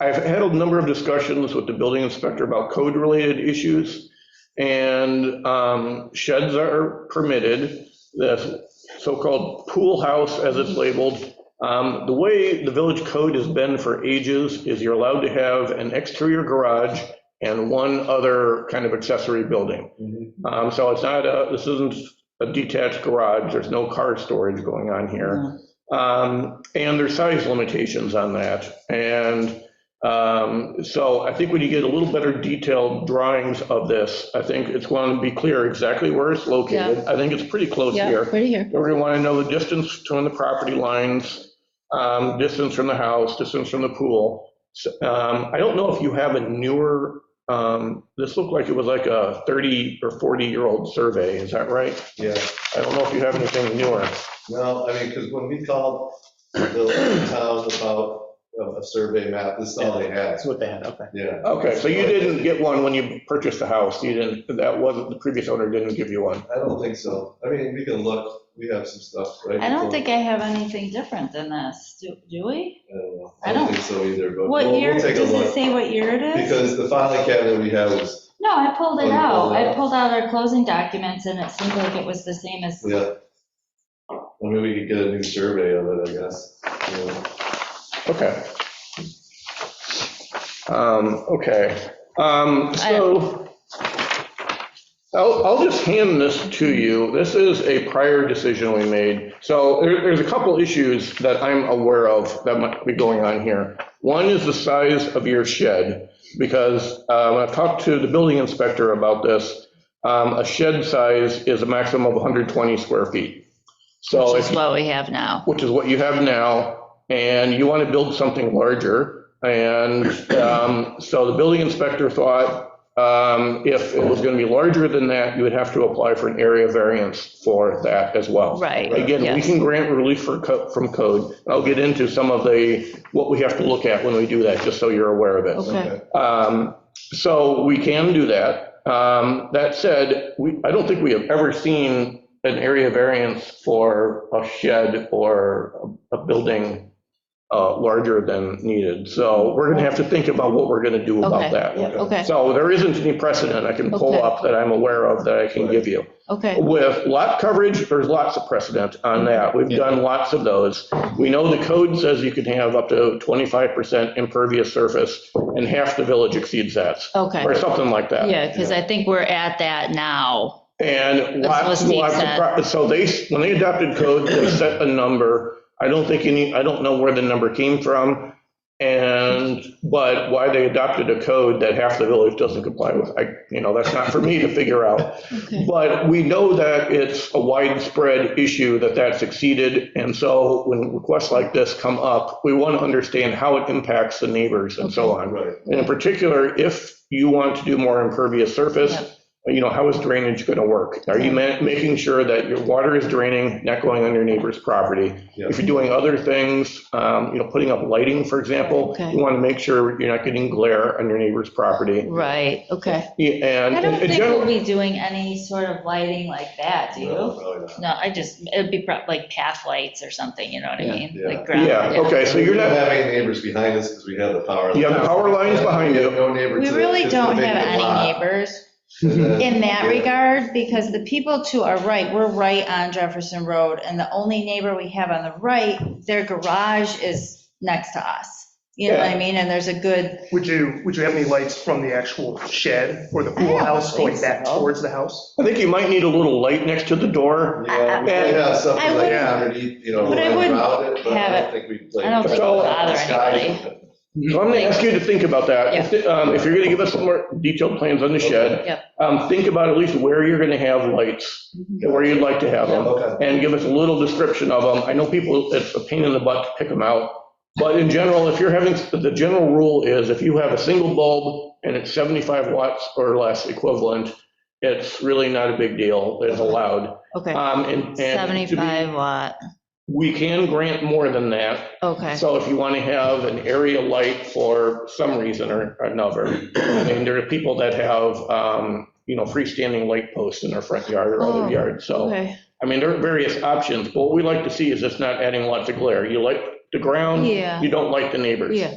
I've had a number of discussions with the building inspector about code-related issues, and um, sheds are permitted, the so-called pool house, as it's labeled. Um, The way the village code has been for ages is you're allowed to have an exterior garage and one other kind of accessory building. Um, So it's not, a- this isn't a detached garage, there's no car storage going on here. Um, And there's size limitations on that. And um, so I think when you get a little better detailed drawings of this, I think it's going to be clear exactly where it's located. I think it's pretty close Yeah, here. pretty here. We're going to want to know the distance between the property lines, um, distance from the house, distance from the pool. So, um, I don't know if you have a newer, um, this looked like it was like a 30 or 40-year-old survey, is that right? Yeah, I don't know if you have anything newer. no, I mean, because when we called the town about a survey map, this is all they had, That's what they had, okay. yeah. Okay, so you didn't get one when you purchased the house, you didn't, that wasn't, the previous owner didn't give you one. I don't think so. I mean, we can look, we have some stuff, right? I don't think I have anything different than this, do do we? I don't know. I I don't don't- think so either, but What we'll, year, we'll does take a it look. say what year it is? Because the filing cabinet we have is, No, I pulled Oh, it you out, pulled it I out. pulled out our closing documents, and it seemed like it was the same as, yeah. I mean, we could get a new survey of it, I guess. Yeah. Okay. Um, okay, um, so I'll, I'll just hand this to you. This is a prior decision we made. So there, there's a couple issues that I'm aware of that might be going on here. One is the size of your shed, because, um, I've talked to the building inspector about this. Um, a shed size is a maximum of 120 square feet. So which if is what we have now. which is what you have now, and you want to build something larger. And um, so the building inspector thought um, if it was going to be larger than that, you would have to apply for an area variance for that as well. Right, Again, we yes. can grant relief for co- from code. I'll get into some of the, what we have to look at when we do that, just so you're aware of it. Okay. Um, So we can do that. Um, That said, we, I don't think we have ever seen an area variance for a shed or a a building uh, larger than needed. So we're going to have to think about what we're going to do about Okay. that. Okay, So there isn't any precedent I can pull Okay. up that I'm aware of that I can give you. okay, With lot coverage, there's lots of precedent on that. We've done lots of those. We know the code says you can have up to 25% impervious surface, and half the village exceeds that, okay. or something like that. Yeah, because I think we're at that now. And lots and That's what lots Steve of, pro- so they, when they adopted code, they set a number. I don't think any, I don't know where the number came from, and, but why they adopted a code that half the village doesn't comply with, I, you know, that's not for me to figure out. Okay. But we know that it's a widespread issue that that's exceeded, and so when requests like this come up, we want to understand how it impacts the neighbors and so on. Right, And in particular, if you want to do more impervious Yep. surface, you know, how is drainage going to work? Are you ma- making sure that your water is draining, not going on your neighbor's property? yeah. If you're doing other things, um, you know, putting up lighting, for example, Okay. you want to make sure you're not getting glare on your neighbor's property. Right, okay. Yeah, And I don't in think we'll general, be doing any sort of lighting like that, do you? No, probably not. No, I just, it'd be prob- like path lights or something, you know what I Yeah. mean? Yeah. Like ground- yeah, okay, so you're We not. don't have any neighbors behind us because we have the power. You have the power lines behind We you. have no neighbor We to the- really to the don't big have any lot. neighbors And then- in that yeah. regard, because the people to our right, we're right on Jefferson Road, and the only neighbor we have on the right, their garage is next to us. You know what I mean? And there's a good, Would you, would you have any lights from the actual shed or the I pool don't house think going back so. towards the house? I think you might need a little light next to the door. Yeah, we might have I something like wouldn't- underneath, you know, but I wouldn't around it, but I have don't think we'd. I don't think it'd bother So I'm going to ask you to think about that. Um, If you're going to give us some more detailed plans on the shed, Yep. um, think about at least where you're going to have lights, Mm-hmm. and where you'd like to have them, Okay, and give us a little description of them. I know people, it's a pain in the butt to pick them out, but in general, if you're having, the general rule is if you have a single bulb and it's 75 watts or less equivalent, it's really not a big deal. It's allowed. Okay, Um, and- and to be- 75 watt, We can grant more than that. okay. So if you want to have an area light for some reason or another, and there are people that have, um, you know, freestanding light posts in their front yard or Oh, other yard, so, Okay, I mean, there are various options, but what we like to see is it's not adding lots of glare. You like the ground, yeah, you don't like the neighbors. yeah.